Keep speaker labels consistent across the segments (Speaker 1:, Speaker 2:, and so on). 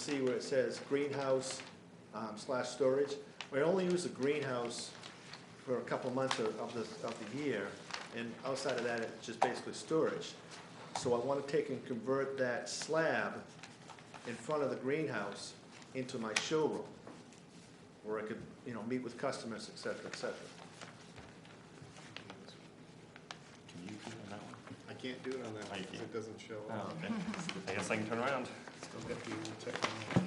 Speaker 1: see where it says greenhouse um, slash storage. We only use the greenhouse for a couple months of, of the, of the year, and outside of that, it's just basically storage. So I wanna take and convert that slab in front of the greenhouse into my showroom, where I could, you know, meet with customers, et cetera, et cetera.
Speaker 2: Can you do it on that
Speaker 3: I can't do it on that one because it doesn't show
Speaker 2: one?
Speaker 3: up.
Speaker 2: Oh, okay. I guess I can turn around.
Speaker 3: Still got the old technology.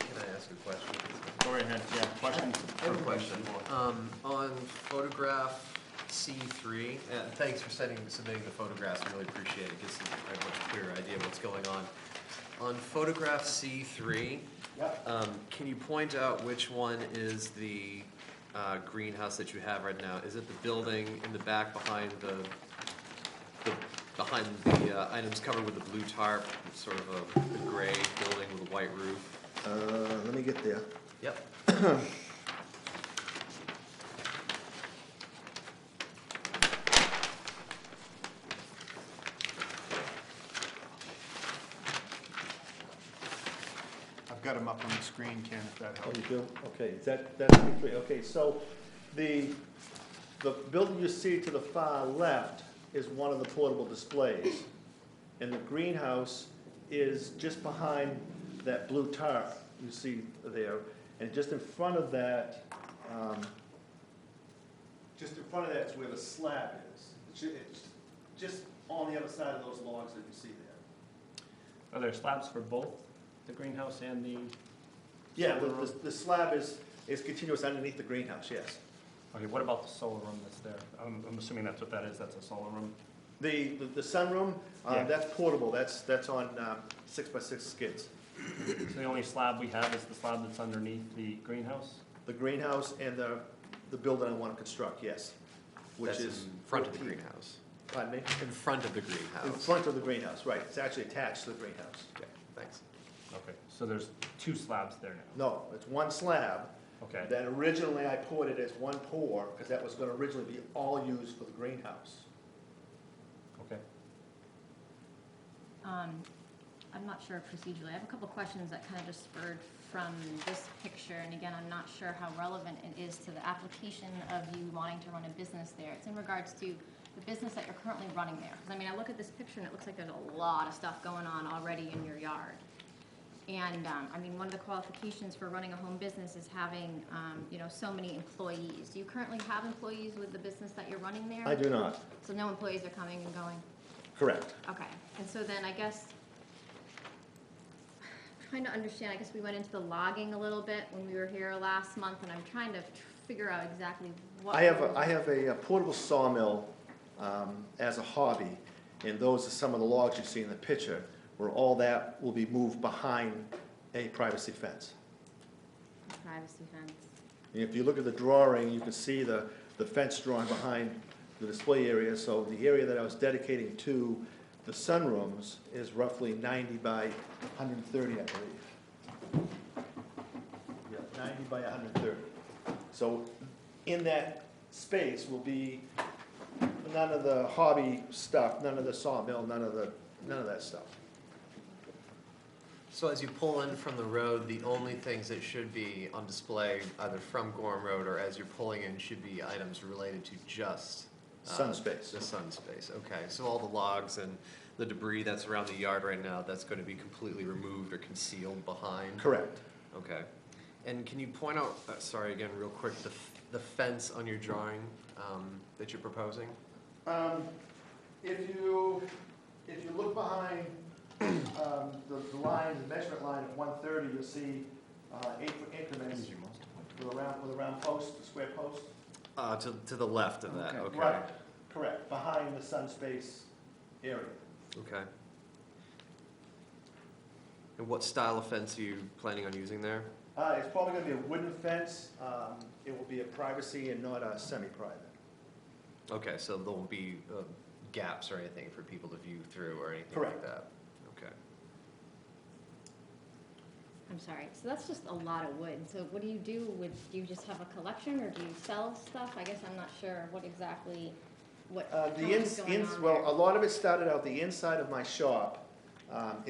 Speaker 4: Can I ask a question?
Speaker 2: Go right ahead, yeah, question.
Speaker 4: I have a question. Um, on photograph C three, uh, thanks for sending, submitting the photographs, I really appreciate it, gives a much clearer idea of what's going on. On photograph C three, um, can you point out which one is the, uh, greenhouse that you have right now? Is it the building in the back behind the, the, behind the uh, items covered with the blue tarp, sort of a gray building with a white roof?
Speaker 1: Uh, let me get there.
Speaker 4: Yep.
Speaker 3: I've got them up on the screen, Ken, if that
Speaker 1: Oh,
Speaker 3: helps.
Speaker 1: you do? Okay, is that, that's the three, okay, so the, the building you see to the far left is one of the portable displays. And the greenhouse is just behind that blue tarp you see there, and just in front of that, um, just in front of that's where the slab is. It's, ju- it's just on the other side of those logs that you see there.
Speaker 2: Are there slabs for both the greenhouse and the?
Speaker 1: Yeah, the, the- the slab is, is continuous underneath the greenhouse, yes.
Speaker 2: Okay, what about the solar room that's there? I'm, I'm assuming that's what that is, that's a solar room.
Speaker 1: The, the- the sunroom,
Speaker 2: Yeah.
Speaker 1: um, that's portable, that's, that's on um, six by six skids.
Speaker 2: So the only slab we have is the slab that's underneath the greenhouse?
Speaker 1: The greenhouse and the, the building I want to construct, yes, which
Speaker 4: That's
Speaker 1: is.
Speaker 4: in front of the
Speaker 1: 14.
Speaker 4: greenhouse.
Speaker 1: Pardon me?
Speaker 4: In front of the
Speaker 1: In
Speaker 4: greenhouse.
Speaker 1: front of the greenhouse, right, it's actually attached to the greenhouse.
Speaker 4: Okay, thanks.
Speaker 2: Okay, so there's two slabs there now?
Speaker 1: No, it's one slab,
Speaker 2: Okay,
Speaker 1: that originally I poured it as one pour, because that was going to originally be all used for the greenhouse.
Speaker 2: okay.
Speaker 5: Um, I'm not sure procedurally. I have a couple questions that kind of just spurred from this picture, and again, I'm not sure how relevant it is to the application of you wanting to run a business there. It's in regards to the business that you're currently running there. 'Cause, I mean, I look at this picture, and it looks like there's a lot of stuff going on already in your yard. And, um, I mean, one of the qualifications for running a home business is having, um, you know, so many employees. Do you currently have employees with the business that you're running there?
Speaker 1: I do not,
Speaker 5: So no employees are coming and going?
Speaker 1: correct.
Speaker 5: Okay, and so then I guess, trying to understand, I guess we went into the logging a little bit when we were here last month, and I'm trying to tr- figure out exactly what.
Speaker 1: I have,
Speaker 5: we're-
Speaker 1: a- I have a uh, portable sawmill um, as a hobby, and those are some of the logs you see in the picture, where all that will be moved behind a privacy fence.
Speaker 5: Privacy fence.
Speaker 1: And if you look at the drawing, you can see the, the fence drawn behind the display area, so the area that I was dedicating to the sunrooms is roughly ninety by hundred and thirty, I believe. Yeah, ninety by hundred and thirty. So in that space will be none of the hobby stuff, none of the sawmill, none of the, none of that stuff.
Speaker 4: So as you pull in from the road, the only things that should be on display either from Gorham Road or as you're pulling in should be items related to just. uh,
Speaker 1: Sun space.
Speaker 4: The sun space, okay. So all the logs and the debris that's around the yard right now, that's going to be completely removed or concealed behind?
Speaker 1: Correct.
Speaker 4: Okay. And can you point out, uh, sorry again, real quick, the, f- the fence on your drawing um, that you're proposing?
Speaker 1: Um, if you, if you look behind, um, the, the line, the measurement line of one thirty, you'll see, uh, eight foot increments with a round, with a round post, a square post.
Speaker 4: Uh, to, to the left of that,
Speaker 2: Okay.
Speaker 4: okay.
Speaker 1: Right, correct, behind the sun space area.
Speaker 4: Okay. And what style of fence are you planning on using there?
Speaker 1: Uh, it's probably gonna be a wooden fence, um, it will be a privacy and not a semi-private.
Speaker 4: Okay, so there won't be uh, gaps or anything for people to view through or anything
Speaker 1: Correct.
Speaker 4: like that? Okay.
Speaker 5: I'm sorry, so that's just a lot of wood, so what do you do with, do you just have a collection, or do you sell stuff? I guess I'm not sure what exactly, what
Speaker 1: Uh,
Speaker 5: how
Speaker 1: the
Speaker 5: much
Speaker 1: ins,
Speaker 5: is going
Speaker 1: ins,
Speaker 5: on
Speaker 1: well, a
Speaker 5: there.
Speaker 1: lot of it started out the inside of my shop Um,